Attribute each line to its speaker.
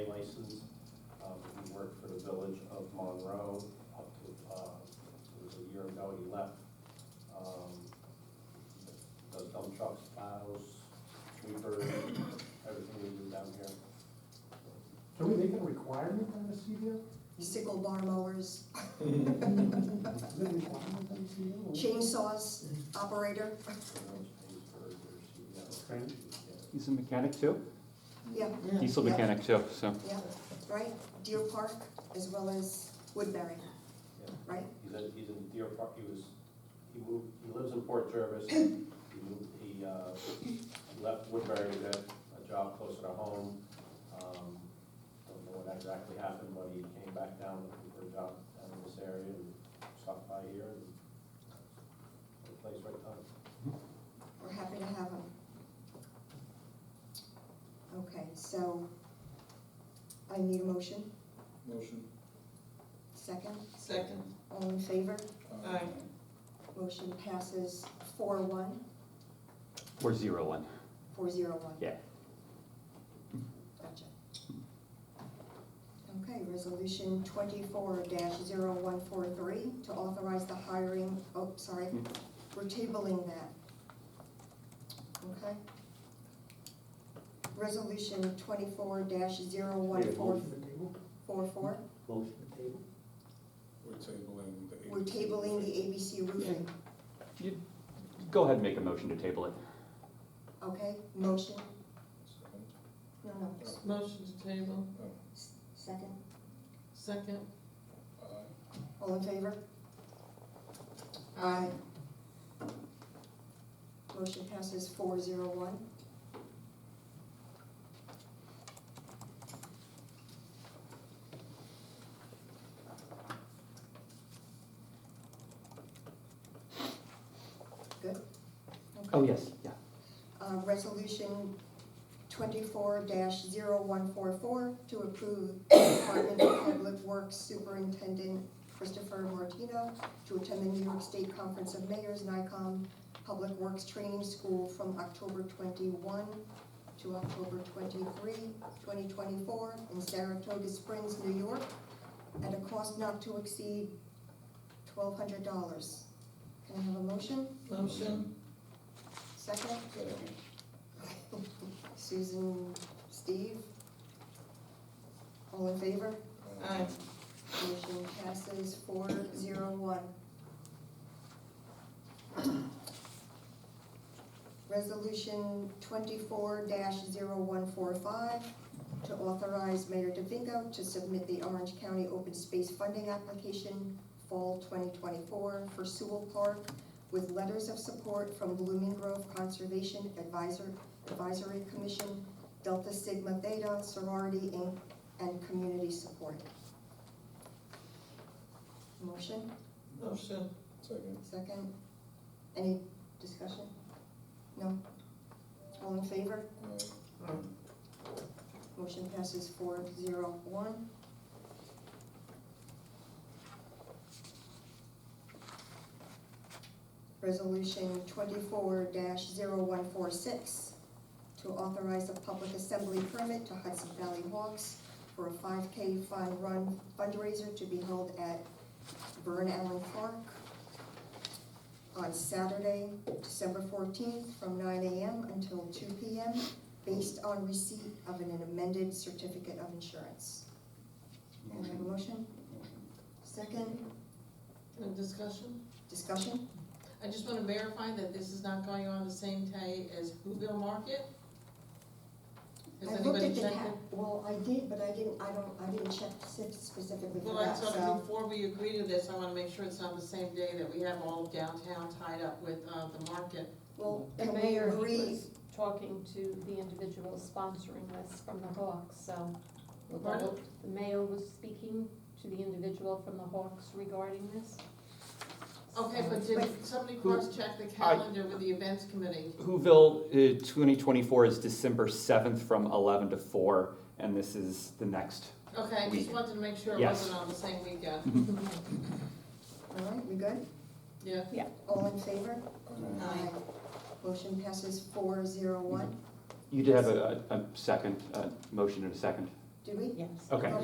Speaker 1: license. Um, He worked for the village of Monroe up to, uh, it was a year ago he left. Um, Does dump trucks, plows, sweepers, everything we do down here.
Speaker 2: Can we make it a requirement on the CDL?
Speaker 3: sickle bar mowers,
Speaker 2: Is it a requirement on the CDL?
Speaker 3: chainsaws operator,
Speaker 1: And those things for your CDL.
Speaker 2: Training.
Speaker 1: Yeah.
Speaker 4: He's a mechanic too,
Speaker 3: yeah,
Speaker 4: diesel
Speaker 3: Yeah.
Speaker 4: mechanic too, so.
Speaker 3: yeah, right? Deer Park as well as Woodbury,
Speaker 1: Yeah.
Speaker 3: right?
Speaker 1: He's in, he's in Deer Park, he was, he moved, he lives in Port Jervis. He moved, he, uh, he left Woodbury to get a job closer to home. Um, Don't know what exactly happened, but he came back down looking for a job down in this area and stopped by here and uh, the place right time.
Speaker 3: We're happy to have them. Okay, so I need a motion,
Speaker 5: Motion.
Speaker 3: second,
Speaker 6: Second.
Speaker 3: all in favor?
Speaker 5: Uh,
Speaker 6: Aye.
Speaker 3: Motion passes four one,
Speaker 4: Or zero one.
Speaker 3: four zero one.
Speaker 4: Yeah.
Speaker 3: Gotcha. Okay, resolution twenty-four dash zero one four three to authorize the hiring, oh, sorry,
Speaker 4: Hmm.
Speaker 3: we're tabling that. Okay? Resolution twenty-four dash zero one four
Speaker 2: Motion to table?
Speaker 3: four four,
Speaker 2: Motion to table?
Speaker 5: We're tabling the.
Speaker 3: we're tabling the ABC roofing,
Speaker 4: Go ahead and make a motion to table it.
Speaker 3: okay? Motion,
Speaker 5: Second.
Speaker 3: no, no,
Speaker 6: Motion to table,
Speaker 5: Oh,
Speaker 3: s- second,
Speaker 6: second.
Speaker 5: Aye.
Speaker 3: all in favor? Aye. Motion passes four zero one. Good?
Speaker 4: Oh,
Speaker 3: Okay.
Speaker 4: yes, yeah.
Speaker 3: Uh, resolution twenty-four 144 to approve Department of Public Works Superintendent Christopher Martino to attend the New York State Conference of Mayors, NICOM Public Works Training School from October twenty-one to October 23, 2024, in Saratoga Springs, New York, at a cost not to exceed twelve hundred dollars. Can I have a motion?
Speaker 6: Motion,
Speaker 3: Second?
Speaker 5: Second.
Speaker 3: Susan, Steve? All in favor?
Speaker 6: aye.
Speaker 3: Motion passes four zero one. Resolution twenty-four 145 to authorize Mayor DeVinco to submit the Orange County Open Space Funding Application Fall twenty twenty-four for Sewell Park with letters of support from Blooming Grove Conservation Advisor, Advisory Commission, Delta Sigma Theta Sorority Inc., and community support. Motion,
Speaker 6: Motion,
Speaker 5: Second.
Speaker 3: second. Any discussion? No? All in favor?
Speaker 5: Aye.
Speaker 3: Motion passes four zero one. Resolution twenty-four 146 to authorize a public assembly permit to Hudson Valley Hawks for a five K fun run fundraiser to be held at Burn Allen Park on Saturday, December fourteenth, from nine AM until two PM based on receipt of an amended certificate of insurance. Can I have a
Speaker 5: Motion.
Speaker 3: motion? Second,
Speaker 6: and discussion?
Speaker 3: discussion?
Speaker 6: I just want to verify that this is not going on the same day as Whoville Market? Has
Speaker 3: I looked
Speaker 6: anybody
Speaker 3: at the
Speaker 6: checked
Speaker 3: ca-
Speaker 6: it?
Speaker 3: Well, I did, but I didn't, I don't, I didn't check spe- specifically for
Speaker 6: Well, I
Speaker 3: that,
Speaker 6: thought
Speaker 3: so.
Speaker 6: before we agree to this, I want to make sure it's not the same day that we have all of downtown tied up with, uh, the market.
Speaker 3: Well,
Speaker 7: The
Speaker 3: can we
Speaker 7: mayor, he
Speaker 3: agree-
Speaker 7: was talking to the individuals sponsoring this from the Hawks, so.
Speaker 6: Pardon?
Speaker 7: The mayor was speaking to the individual from the Hawks regarding this.
Speaker 6: Okay, but
Speaker 3: But-
Speaker 6: did somebody
Speaker 4: Who-
Speaker 6: cross-check the calendar with the events committee?
Speaker 4: Whoville, uh, 2024 is December 7th from 11 to 4, and this is the next.
Speaker 6: Okay, I just
Speaker 4: Week.
Speaker 6: wanted to make sure it
Speaker 4: Yes.
Speaker 6: wasn't on the same weekend.
Speaker 3: All right, we good?
Speaker 6: Yeah,
Speaker 3: All in favor?
Speaker 5: Aye.
Speaker 3: Motion passes four zero one.
Speaker 4: You did have a, a a second, uh motion and a second.
Speaker 8: Did we?
Speaker 9: Yes.
Speaker 3: Okay.